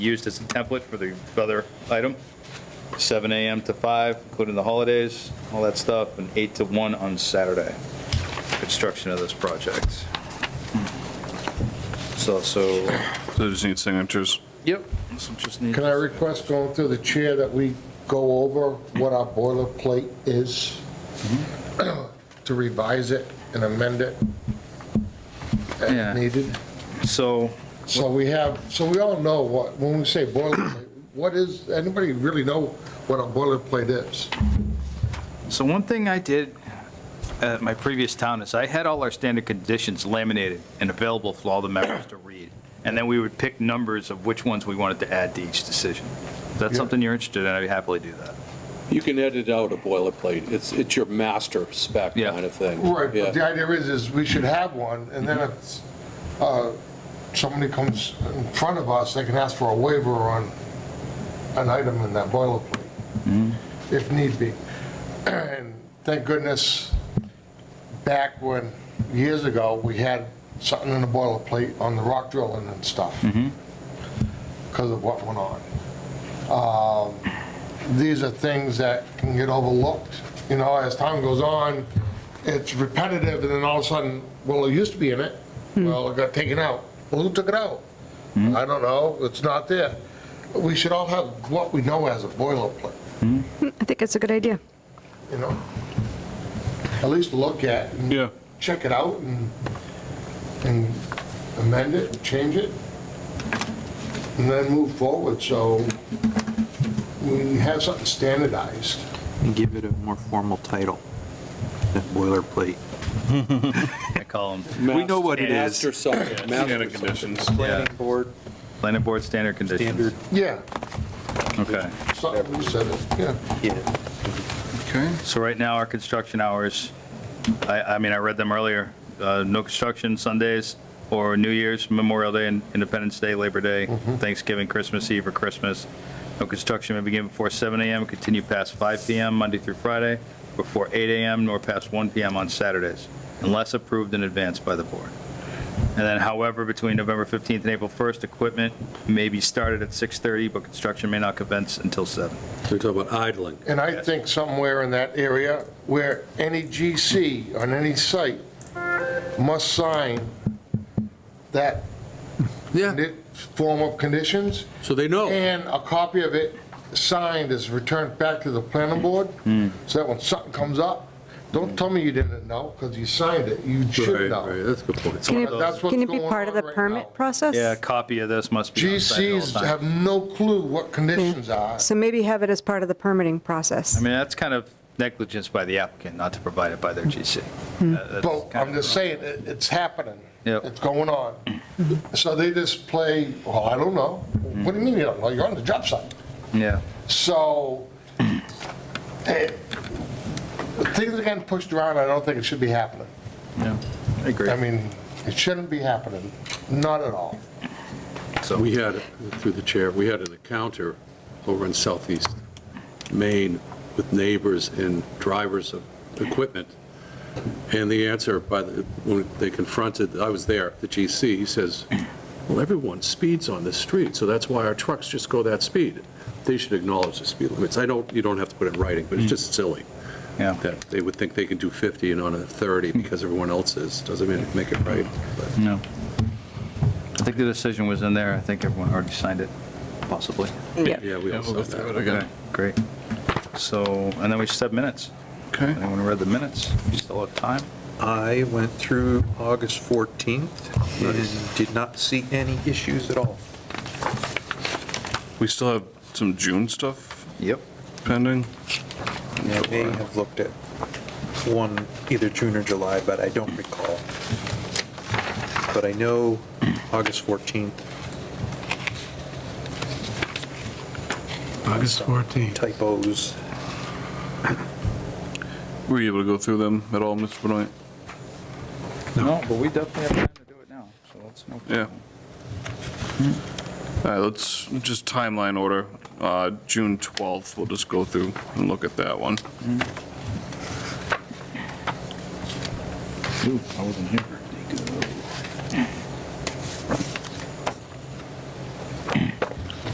used as a template for the other item. 7 AM to 5, including the holidays, all that stuff, and 8 to 1 on Saturday, construction of this project. So, so, So just need signatures. yep. this will just need- Can I request going through the chair that we go over what our boilerplate is? To revise it and amend it Yeah. as needed? So, So we have, so we all know what, when we say boilerplate, what is, anybody really know what a boilerplate is? So one thing I did at my previous town is I had all our standard conditions laminated and available for all the members to read. And then we would pick numbers of which ones we wanted to add to each decision. If that's Yeah. something you're interested in, I'd happily do that. You can edit out a boilerplate. It's, it's your master spec Yeah. kind of thing. Right, but the Yeah. Mm-hmm. idea is, is we should have one, and then if uh, somebody comes in front of us, they can ask for a waiver on an item in that boilerplate, Mm-hmm. if need be. And thank goodness, back when, years ago, we had something in the boilerplate on the rock drilling and stuff, Mm-hmm. because of what went on. these are things that can get overlooked. You know, as time goes on, it's repetitive, and then all of a sudden, well, it used to be in it. Well, it got taken out. Well, who took it out? I don't know, it's not there. We should all have what we know as a boilerplate, I think it's a good idea. you know? At least look at and Yeah. check it out and, and amend it, change it, and then move forward, so we have something standardized. and give it a more formal title than boilerplate. I call them We know what it is. Master subject, master Standard subject. conditions. Planning board. planning board standard conditions. Standard. Yeah. Okay. Something you said, it, yeah. Yeah. Okay. So right now, our construction hours, I, I mean, I read them earlier, uh, no construction Sundays or New Year's, Memorial Day, and Independence Day, Labor Day, Thanksgiving, Christmas Eve or Christmas. No construction may begin before 7 AM, continue past 5 PM Monday through Friday, before 8 AM nor past 1 PM on Saturdays, unless approved in advance by the board. And then however, between November 15th and April 1st, equipment may be started at 6:30, but construction may not commence until 7. We're talking about idling. And I think somewhere in that area where any GC on any site must sign that Yeah, condi- form of conditions so they know. and a copy of it signed is returned back to the planning board. So that when something comes up, don't tell me you didn't know because you signed it. You should know. That's a good point. Can one of those- it, can it be That's what's part of the going on right now. permit process? Yeah, a copy of this must be on site at all GCs times. have no clue what conditions are. So maybe have it as part of the permitting process. I mean, that's kind of negligence by the applicant not to provide it by their GC. Uh, that's But kind I'm of- just saying, it- it's happening. Yep. It's going on. So they just play, well, I don't know. What do you mean you don't know? You're on the job site. Yeah, So eh, things are getting pushed around. I don't think it should be happening. yeah, I agree. I mean, it shouldn't be happening, not at all. So, We had, through the chair, we had an encounter over in southeast Maine with neighbors and drivers of equipment. And the answer by, the when they confronted, I was there, the GC, he says, well, everyone speeds on this street, so that's why our trucks just go that speed. They should acknowledge the speed limits. I don't, you don't have to put it in writing, but it's Mm. just silly yeah, that they would think they can do 50 and on a 30 because everyone else is. Doesn't mean make it right. but- no. I think the decision was in there. I think everyone already signed it, possibly. Yeah, we Yeah, all we'll saw go through it that. Okay, again. Great. So, and then we set minutes. Okay. Anyone read the minutes? We Still have time? I went through August 14th and did not see any issues at all. We still have some June stuff Yep. pending. I may have looked at one either June or July, but I don't recall. But I know August 14th. August 14th. Typos. Were you able to go through them at all, Mr. Benoit? No, but we definitely have time to do it now, so that's no Yeah. problem. All right, let's just timeline order. Uh, June 12th, we'll just go through and look at that one. Ooh, I wasn't here.